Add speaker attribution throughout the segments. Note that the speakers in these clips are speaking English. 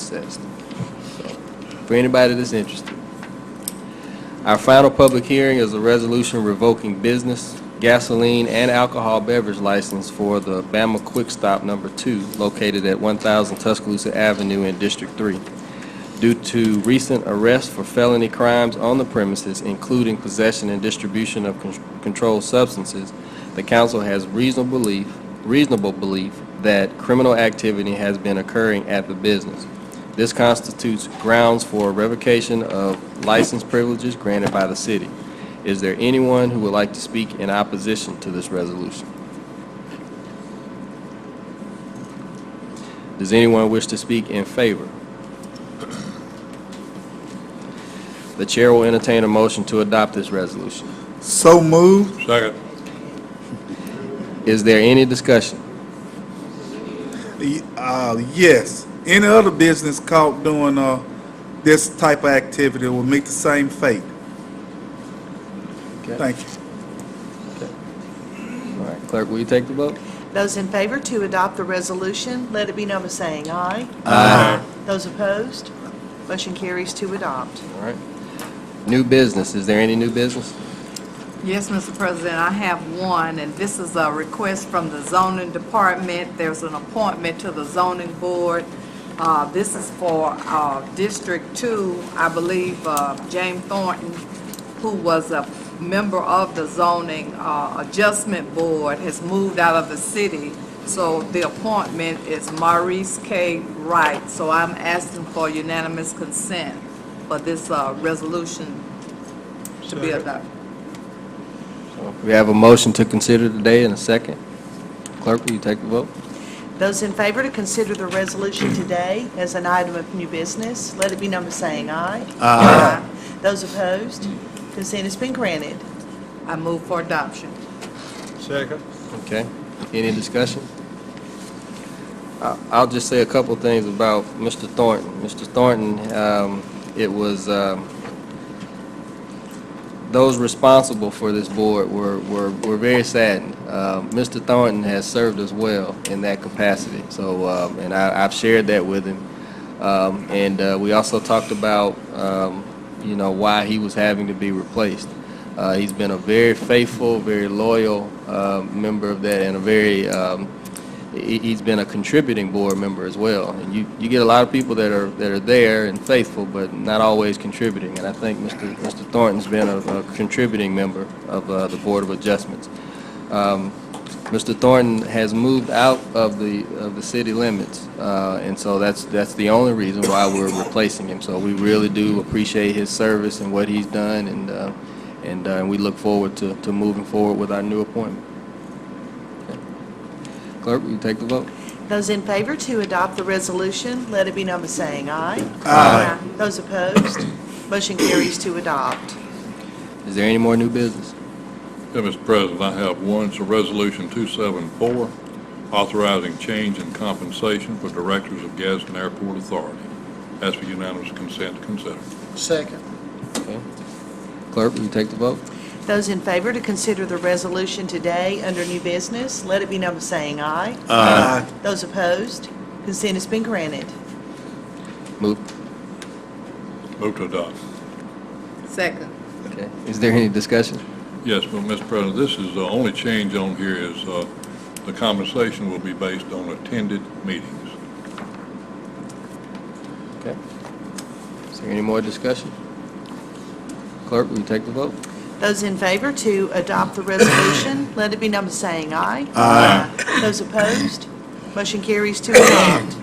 Speaker 1: assessed. So, For anybody that's interested. Our final public hearing is a resolution revoking business, gasoline, and alcohol beverage license for the Bama Quick Stop Number Two located at 1,000 Tuscaloosa Avenue in District Three due to recent arrests for felony crimes on the premises, including possession and distribution of con- controlled substances, the council has reasonable belief, reasonable belief that criminal activity has been occurring at the business. This constitutes grounds for revocation of license privileges granted by the city. Is there anyone who would like to speak in opposition to this resolution? Does anyone wish to speak in favor? The chair will entertain a motion to adopt this resolution.
Speaker 2: So moved.
Speaker 3: Second.
Speaker 1: Is there any discussion?
Speaker 2: Y- Uh, yes. Any other business caught doing, uh, this type of activity will meet the same fate. Thank you.
Speaker 1: All right, clerk, will you take the vote?
Speaker 4: Those in favor to adopt the resolution, let it be known by saying aye.
Speaker 3: Aye.
Speaker 4: Those opposed, motion carries to adopt.
Speaker 1: All right. New business, is there any new business?
Speaker 5: Yes, Mr. President, I have one, and this is a request from the zoning department. There's an appointment to the zoning board. Uh, This is for uh, District Two, I believe, uh, James Thornton, who was a member of the zoning uh, adjustment board, has moved out of the city. So the appointment is Maurice K. Wright. So I'm asking for unanimous consent for this uh, resolution to be adopted.
Speaker 1: We have a motion to consider today and a second. Clerk, will you take the vote?
Speaker 4: Those in favor to consider the resolution today as an item of new business, let it be known by saying aye. Aye. Those opposed, consent has been granted.
Speaker 5: I move for adoption.
Speaker 3: Second.
Speaker 1: Okay, any discussion? I- I'll just say a couple things about Mr. Thornton. Mr. Thornton, um, it was, um, those responsible for this board were, were, were very saddened. Uh, Mr. Thornton has served us well in that capacity, so, um, and I, I've shared that with him. Um, and, uh, we also talked about, um, you know, why he was having to be replaced. Uh, he's been a very faithful, very loyal, uh, member of that and a very, um, he- he's been a contributing board member as well. And you, you get a lot of people that are, that are there and faithful, but not always contributing. And I think Mr. Mr. Thornton's been a, a contributing member of uh, the Board of Adjustments. Um, Mr. Thornton has moved out of the, of the city limits, uh, and so that's, that's the only reason why we're replacing him. So we really do appreciate his service and what he's done, and, uh, and uh, we look forward to, to moving forward with our new appointment. Okay. Clerk, will you take the vote?
Speaker 4: Those in favor to adopt the resolution, let it be known by saying aye. Aye. Those opposed, motion carries to adopt.
Speaker 1: Is there any more new business?
Speaker 3: Yeah, Mr. President, I have one. It's a resolution 274, authorizing change in compensation for directors of Gadsden Airport Authority. Ask for unanimous consent to consider.
Speaker 6: Second.
Speaker 1: Okay. Clerk, will you take the vote?
Speaker 4: Those in favor to consider the resolution today under new business, let it be known by saying aye.
Speaker 2: Aye.
Speaker 4: Those opposed, consent has been granted.
Speaker 1: Move.
Speaker 3: Move to adopt.
Speaker 5: Second.
Speaker 1: Okay. Is there any discussion?
Speaker 3: Yes, but Mr. President, this is, the only change on here is uh, the compensation will be based on attended meetings.
Speaker 1: Okay. Is there any more discussion? Clerk, will you take the vote?
Speaker 4: Those in favor to adopt the resolution, let it be known by saying aye. Aye. Those opposed, motion carries to adopt.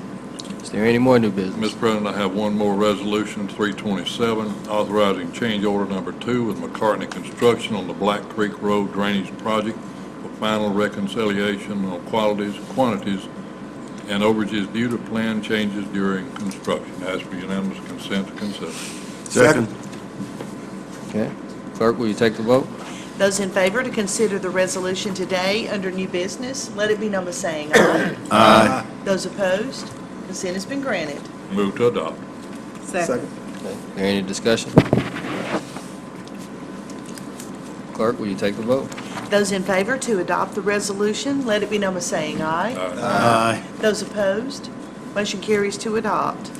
Speaker 1: Is there any more new business?
Speaker 3: Mr. President, I have one more resolution, 327, authorizing change order number two with McCartney Construction on the Black Creek Road Drainage Project for final reconciliation on qualities, quantities, and overages due to plan changes during construction. Ask for unanimous consent to consider.
Speaker 2: Second.
Speaker 1: Okay. Clerk, will you take the vote?
Speaker 4: Those in favor to consider the resolution today under new business, let it be known by saying aye. Aye. Those opposed, consent has been granted.
Speaker 3: Move to adopt.
Speaker 5: Second.
Speaker 1: Okay. Is there any discussion? Clerk, will you take the vote?
Speaker 4: Those in favor to adopt the resolution, let it be known by saying aye.
Speaker 3: Aye.
Speaker 2: Aye.
Speaker 4: Those opposed, motion carries to adopt.